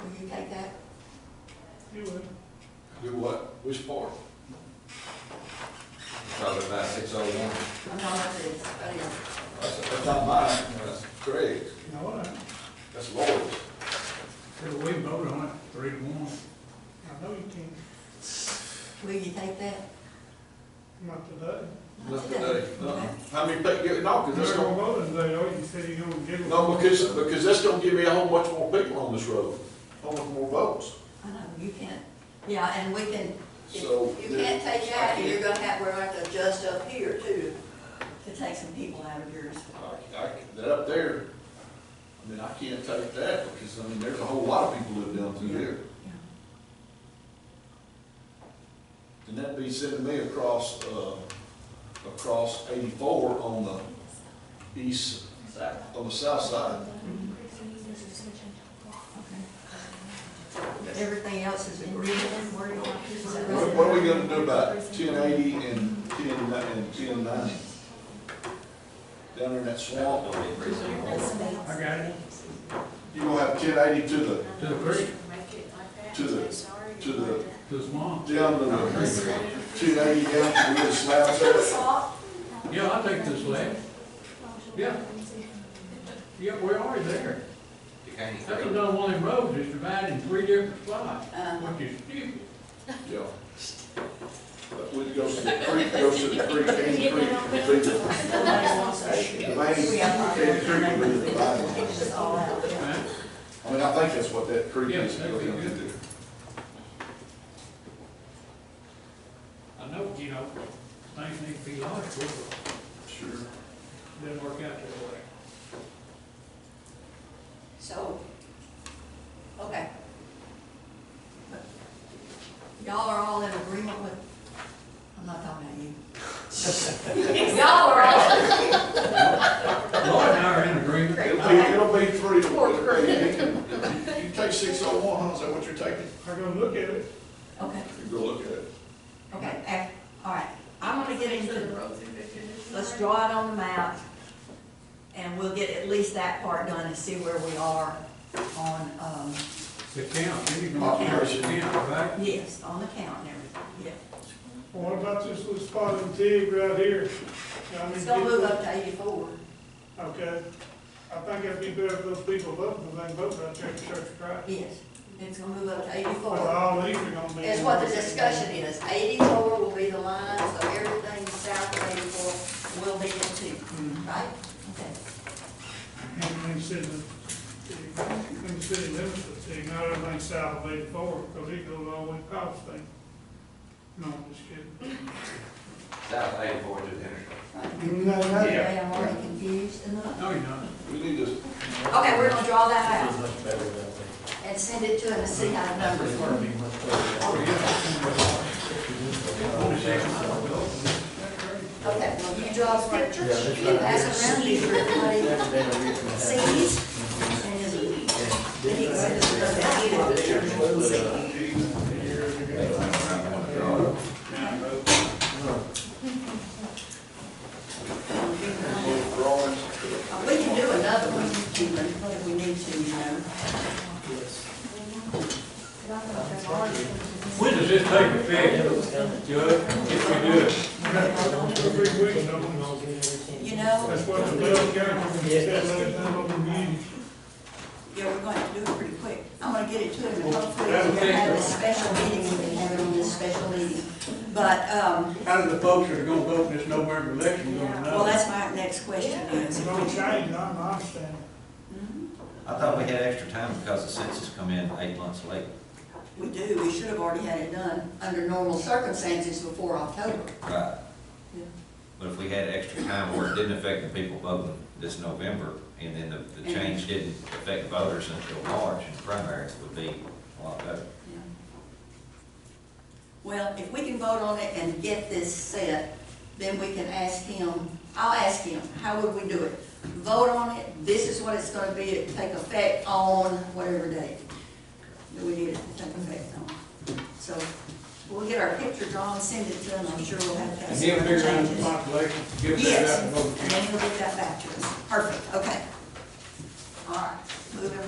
Will you take that? You would. Do what? Which part? Probably about six oh one. I'm not up to this, oh, yeah. That's, that's not mine, that's Craig's, No, I, that's Lord's. because we voted on it three to one. I know you can't, Will you take that? not today. Not today. Uh-uh. Uh, How many, pa- yeah, no, because that's They're gonna gonna, vote and they, oh, you said you're gonna give them. no, because, because that's gonna give me a whole bunch more people on this road, a whole bunch more votes. I know, you can't, yeah, and we can, if So, you can't take that, and I you're gonna have, we're gonna have to adjust up here too, to take some people out of yours. I, I, that up there, I mean, I can't take that, because, I mean, there's a whole lot of people live down through there. And that'd be sending me across, uh, across eighty-four on the east, on the south side. But everything else is in written, worded like this. What, what are we gonna do about ten eighty and ten, ni- and ten ninety? Down there in that swamp, I got it. you gonna have ten eighty to the, To the creek, to the, to the, to the swamp. down to the, ten eighty down to the slabs there? Yeah, I'll take this way. Yeah. Yeah, we're already there. You can't even That's read. another one of them roads, it's divided in three different spots, Uh, which is stupid. Yeah. But when it goes to the creek, it goes to the creek, Caney Creek, between the, nobody wants us. the main, Caney Creek, and the dividing. It's just all out, yeah. Huh? I mean, I think that's what that creek is. Yeah, that'd be going good. into. I know, you know, things need to be logical, but Sure. it didn't work out that way. So, okay. Y'all are all in agreement with, I'm not talking about you. Y'all are all, Laura and I are in agreement. It'll be, it'll be three to one. You take six oh one, huh? Is that what you're taking? We're gonna look at it. okay, You go look at it. okay, ac- all right. I'm gonna get into, let's draw it on the map, and we'll get at least that part done and see where we are on, um, The count, then you can. Population. Count, right? yes, on the count and everything, Well, What about this little spot in Tig right here? I yeah. mean, It's gonna move up to eighty-four. Okay, I think it'd be better if those people vote, because they vote right there at Church of Christ. Yes, it's gonna move up to But eighty-four. all these are gonna be. is what the discussion is. Eighty-four will be the line, so everything south of eighty-four will be in two, right? Okay. And then city, and city limits of Tig, not everything south of eighty-four, because it goes all the way across thing. No, I'm just kidding. South eighty-four to Henry. No, no. Okay, I'm already confused enough. No, you're not. We need to, Okay, we're gonna draw that out and send it to him and see how the numbers work. Okay, well, you draw some pictures, you pass them around, you for everybody sees. And then he goes to the back of the church. those drawings, Uh, We can do another one, if we need to, you know. When does this take effect, Judge, if we do it? Every week, no, You know, that's what the bill came, said last time on the meeting. yeah, we're going to do it pretty quick. I'm going to get it to him, and hopefully we're going to have a special meeting, we can have it on this special meeting. But, um, How do the folks that are gonna vote in this November election gonna know? well, that's my next question is. It's gonna change, not my understanding. I thought we had extra time because the census come in eight months late. We do, we should have already had it done under normal circumstances before October. Right. Yeah. But if we had extra time where it didn't affect the people voting this November, and then the, the change didn't affect voters until March, and primaries would be a lot better. Yeah. Well, if we can vote on it and get this set, then we can ask him, I'll ask him, how would we do it? Vote on it, this is what it's gonna be, it take effect on whatever date. Do we need it to take effect on? So, we'll get our picture drawn, send it to him, I'm sure we'll have to. And have he'll some figure out the changes. population, give that out Yes, and and vote. then he'll get that back to us. Perfect, okay.